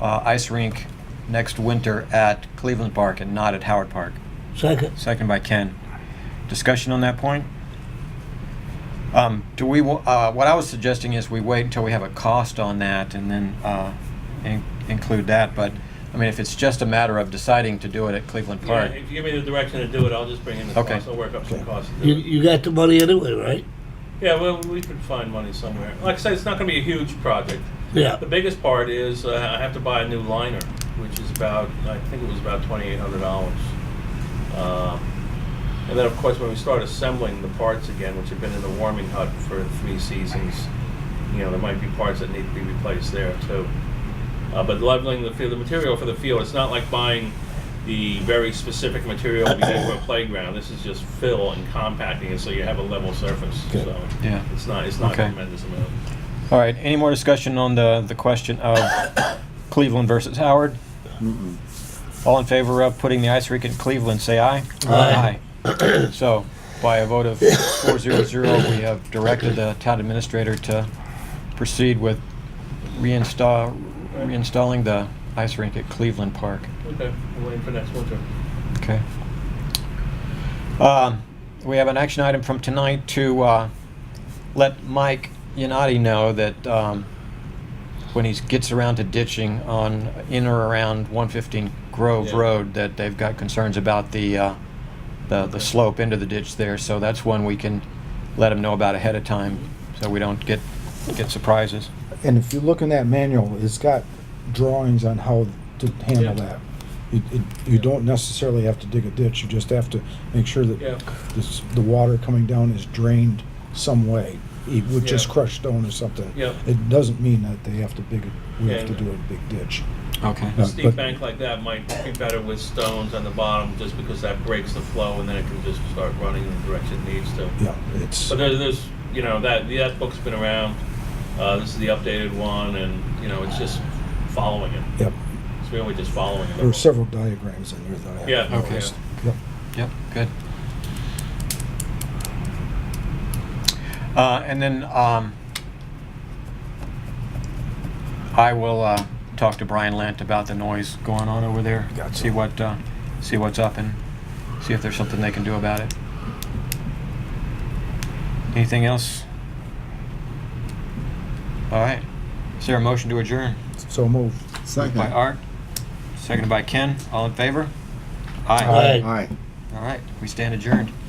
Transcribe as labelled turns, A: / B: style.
A: uh, ice rink next winter at Cleveland Park and not at Howard Park.
B: Second.
A: Second by Ken. Discussion on that point? Um, do we, wa- uh, what I was suggesting is we wait until we have a cost on that and then, uh, in- include that, but, I mean, if it's just a matter of deciding to do it at Cleveland
C: Yeah,
A: Park.
C: if you give me the direction to do it, I'll just bring in the
A: Okay.
C: cost, I'll work up some costs. to do
B: You,
C: it.
B: you got the money anyway, right?
C: Yeah, well, we could find money somewhere. Like I said, it's not gonna be a huge project.
B: Yeah.
C: The biggest part is uh, I have to buy a new liner, which is about, I think it was about twenty-eight hundred dollars. Uh, And then, of course, when we start assembling the parts again, which have been in the warming hut for three seasons, you know, there might be parts that need to be replaced there too. Uh, But leveling the field, the material for the field, it's not like buying the very specific material we need for a playground. This is just fill and compacting it so you have a level surface,
B: Okay.
C: so.
A: Yeah.
C: It's not, it's not a
A: Okay.
C: tremendous amount.
A: All right, any more discussion on the, the question of Cleveland versus Howard? All in favor of putting the ice rink in Cleveland, say aye.
B: Aye.
A: Aye. So, by a vote of four zero zero, we have directed the town administrator to proceed with reinstall, reinstalling the ice rink at Cleveland Park.
C: Okay, we're waiting for next winter.
A: Okay. Um, We have an action item from tonight to uh, let Mike Yanati know that um, when he gets around to ditching on in or around 115 Grove
C: Yeah.
A: Road, that they've got concerns about the, uh, the the slope into the ditch there. So that's one we can let him know about ahead of time, so we don't get, get surprises.
D: And if you look in that manual, it's got drawings on how to
C: Yeah.
D: handle that. It, it, you don't necessarily have to dig a ditch, you just have to make sure that
C: Yeah.
D: this, the water coming down is drained some way, e- with just
C: Yeah.
D: crushed stone or something.
C: Yeah.
D: It doesn't mean that they have to dig, a- we have to
C: Yeah.
D: do a big ditch.
A: Okay.
C: A
D: Yeah,
C: steep
D: Uh, but-
C: bank like that might be better with stones on the bottom, just because that breaks the flow, and then it can just start running in the direction it needs to.
D: Yeah, it's,
C: But there, there's, you know, that, that book's been around, uh, this is the updated one, and, you know, it's just following it,
D: yep,
C: it's really just following it.
D: there are several diagrams in there that I
C: Oh, Yeah,
D: have
C: okay.
D: noticed. Yep.
A: Yep, good. Uh, And then um, I will uh, talk to Brian Lent about the noise going on over there.
D: Gotcha.
A: See what, uh, see what's up and see if there's something they can do about it. Anything else? All right. Is there a motion to adjourn?
D: So moved.
A: Moved By
E: Second.
A: Art, seconded by Ken. All in favor?
B: Aye.
A: All right, we stand adjourned.